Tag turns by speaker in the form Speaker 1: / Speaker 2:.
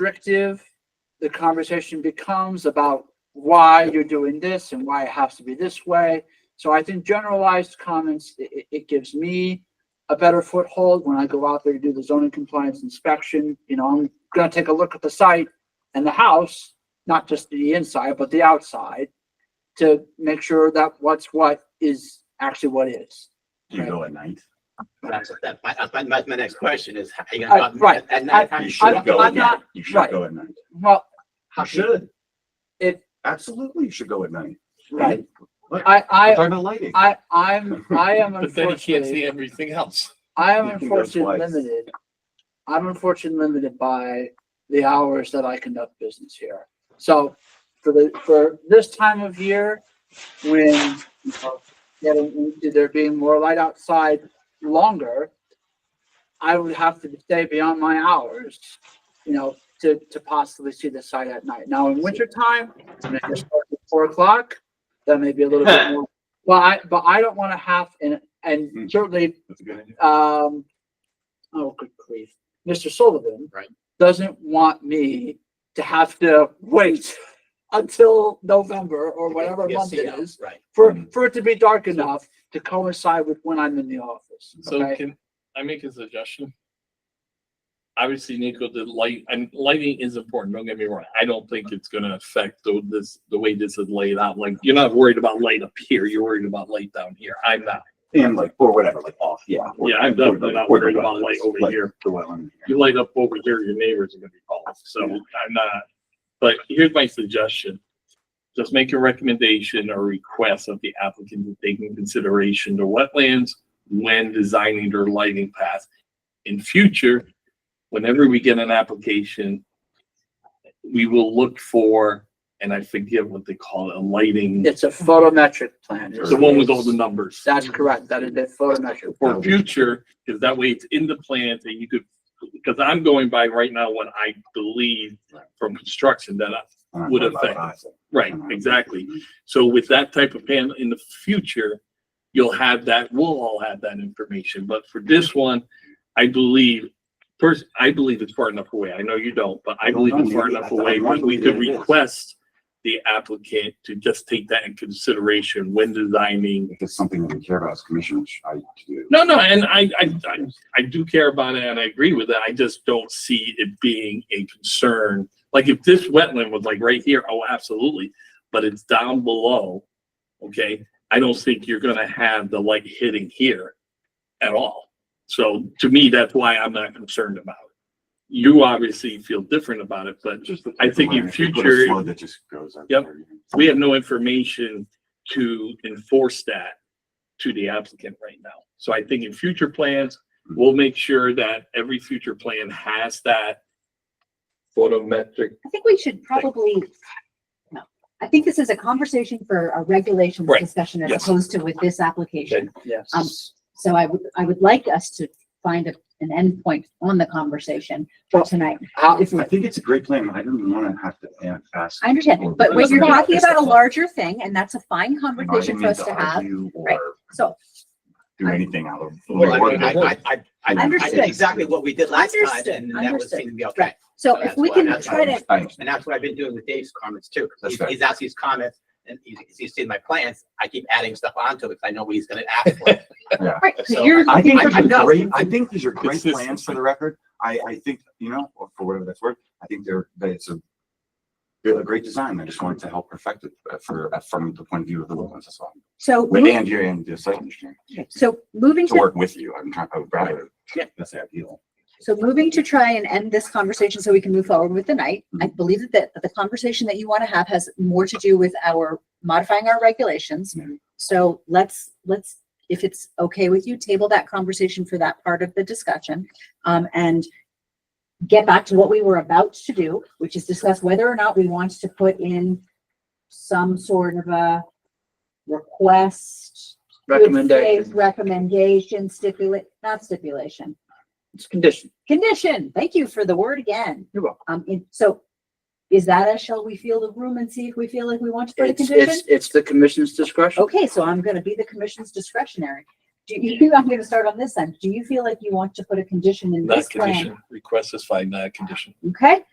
Speaker 1: restrictive the conversation becomes about why you're doing this and why it has to be this way. So I think generalized comments, it, it, it gives me a better foothold when I go out there to do the zoning compliance inspection. You know, I'm gonna take a look at the site and the house, not just the inside, but the outside to make sure that what's what is actually what is.
Speaker 2: Do you go at night?
Speaker 3: That's, that, my, that's my, that's my next question is, how you
Speaker 1: Uh,
Speaker 3: gonna?
Speaker 1: right.
Speaker 3: At
Speaker 1: I-
Speaker 3: night, how
Speaker 2: You
Speaker 3: you
Speaker 1: I'm-
Speaker 2: should go
Speaker 1: I'm
Speaker 2: at
Speaker 1: not-
Speaker 2: night. You should
Speaker 1: right.
Speaker 2: go at night.
Speaker 1: Well,
Speaker 2: You should.
Speaker 1: It-
Speaker 2: Absolutely, you should go at night.
Speaker 1: right,
Speaker 2: Look,
Speaker 1: I,
Speaker 2: we're
Speaker 1: I,
Speaker 2: Talking about lighting.
Speaker 1: I, I'm, I am
Speaker 4: But then you can't see
Speaker 1: unfortunately,
Speaker 4: everything else.
Speaker 1: I am
Speaker 2: You can go
Speaker 1: unfortunately
Speaker 2: twice.
Speaker 1: limited. I'm unfortunately limited by the hours that I conduct business here. So for the, for this time of year, when you know, getting, into there being more light outside longer, I would have to stay beyond my hours, you know, to, to possibly see the site at night. Now, in wintertime, when it gets dark at four o'clock, that may be a little bit more. Well, I, but I don't want to have, and,
Speaker 2: Hmm.
Speaker 1: and certainly
Speaker 2: That's a good idea.
Speaker 1: um, oh, good grief, Mr. Sullivan.
Speaker 3: Right.
Speaker 1: Doesn't want me to have to wait until November or whatever month it is
Speaker 3: Right.
Speaker 1: for,
Speaker 2: Mhm.
Speaker 1: for it to be dark enough to coincide with when I'm in the office.
Speaker 4: So
Speaker 1: Okay,
Speaker 4: can I make a suggestion? Obviously, Nico, the light, and lighting is important, don't get me wrong. I don't think it's gonna affect the, this, the way this is laid out. Like, you're not worried about light up here, you're worried about light down here. I'm not.
Speaker 2: And like, or whatever, like off, yeah. or-
Speaker 4: Yeah, I'm definitely not
Speaker 2: or the
Speaker 4: worried about
Speaker 2: weather,
Speaker 4: light over
Speaker 2: like
Speaker 4: here.
Speaker 2: The well in here.
Speaker 4: You light up over here, your neighbors are gonna be calling, so I'm not. But here's my suggestion. Just make a recommendation or request of the applicant to take into consideration the wetlands when designing their lighting path. In future, whenever we get an application, we will look for, and I forget what they call it, a lighting,
Speaker 1: it's a photometric plan.
Speaker 4: the one with all the numbers.
Speaker 1: That's correct, that is a photometric.
Speaker 4: For future, because that way it's in the plans and you could, because I'm going by right now what I believe from construction that I,
Speaker 2: I don't know
Speaker 4: Would
Speaker 2: about
Speaker 4: affect.
Speaker 2: us. I
Speaker 4: right,
Speaker 2: don't know.
Speaker 4: exactly. So with that type of panel in the future, you'll have that, we'll all have that information. But for
Speaker 2: Mm-hmm.
Speaker 4: this one, I believe, first, I believe it's far enough away. I know you don't, but I
Speaker 2: I don't
Speaker 4: believe it's
Speaker 2: know.
Speaker 4: far
Speaker 2: Maybe
Speaker 4: enough
Speaker 2: I- I
Speaker 4: away when we
Speaker 2: believe
Speaker 4: could
Speaker 2: it is.
Speaker 4: request the applicant to just take that in consideration when designing.
Speaker 2: If it's something that we care about as commissioners, I do.
Speaker 4: No, no, and I, I, I I do care about it and I agree with it. I just don't see it being a concern. Like if this wetland was like right here, oh, absolutely, but it's down below. Okay, I don't think you're gonna have the light hitting here at all. So to me, that's why I'm not concerned about it. You obviously feel different about it, but
Speaker 2: Just the-
Speaker 4: I think in
Speaker 2: If you put a
Speaker 4: future-
Speaker 2: flood That just goes. out
Speaker 4: Yep.
Speaker 2: there, you know.
Speaker 4: we have no information to enforce that to the applicant right now. So I think in future plans, we'll make sure that every future plan has that photometric.
Speaker 5: I think we should probably, no, I think this is a conversation for a regulations
Speaker 4: Right,
Speaker 5: discussion as
Speaker 4: yes.
Speaker 5: opposed to with this application. Um,
Speaker 1: Yes.
Speaker 5: So I would, I would like us to find a- an endpoint on the conversation for
Speaker 1: Well,
Speaker 5: tonight.
Speaker 1: How,
Speaker 2: Uh, If- I think it's a great plan. I don't want to have to a- ask.
Speaker 5: I understand, but when
Speaker 2: what
Speaker 5: you're talking about a larger thing, and that's a fine conversation for us to have, right. so
Speaker 2: Do anything out of.
Speaker 3: Well, I, mean, I, I, I, I, I
Speaker 5: Understood.
Speaker 3: did exactly what we did last time
Speaker 5: Understood,
Speaker 3: and that was
Speaker 5: understood.
Speaker 3: seemed to be okay.
Speaker 5: So
Speaker 3: So
Speaker 5: if
Speaker 3: that's
Speaker 5: we
Speaker 3: why-
Speaker 5: can
Speaker 3: that's
Speaker 5: try to,
Speaker 2: I-
Speaker 3: And that's what I've been doing with Dave's comments too.
Speaker 2: That's
Speaker 3: He's,
Speaker 2: fair.
Speaker 3: he's asked these comments and he's, he's seen my plans. I keep adding stuff onto it because I know what he's gonna ask for.
Speaker 5: right, so
Speaker 3: So
Speaker 5: you're.
Speaker 2: I think
Speaker 3: I-
Speaker 2: these
Speaker 3: I
Speaker 2: are
Speaker 3: know.
Speaker 2: great, I think these are great
Speaker 4: Consistent.
Speaker 2: plans for the record. I, I think, you know, for whatever that's worth, I think they're, that it's a they're a great design. I just wanted to help perfect it uh, for, uh, from the point of view of the wetlands as well.
Speaker 5: So,
Speaker 2: With
Speaker 5: move-
Speaker 2: and you and the site engineer,
Speaker 5: so moving
Speaker 2: to
Speaker 5: to,
Speaker 2: work with you. I'm trying, I would rather, that's the ideal.
Speaker 5: so moving to try and end this conversation so we can move forward with the night. I believe that the conversation that you want to have has more to do with our modifying our regulations.
Speaker 2: Mhm.
Speaker 5: So let's, let's, if it's okay with you, table that conversation for that part of the discussion. Um, and get back to what we were about to do, which is discuss whether or not we want to put in some sort of a request. good faith
Speaker 1: recommendation,
Speaker 5: Recommendation, stipulate, not stipulation,
Speaker 1: it's condition.
Speaker 5: condition. Thank you for the word again.
Speaker 1: You're welcome.
Speaker 5: Um, and so is that a, shall we feel the room and see if we feel like we want to put a
Speaker 1: It's,
Speaker 5: condition?
Speaker 1: it's, it's the commission's discretion.
Speaker 5: Okay, so I'm gonna be the commission's discretionary. Do you, I'm gonna start on this end. Do you feel like you want to put a condition in
Speaker 4: Not
Speaker 5: this plan?
Speaker 4: condition, request is fine, not a condition.
Speaker 5: Okay,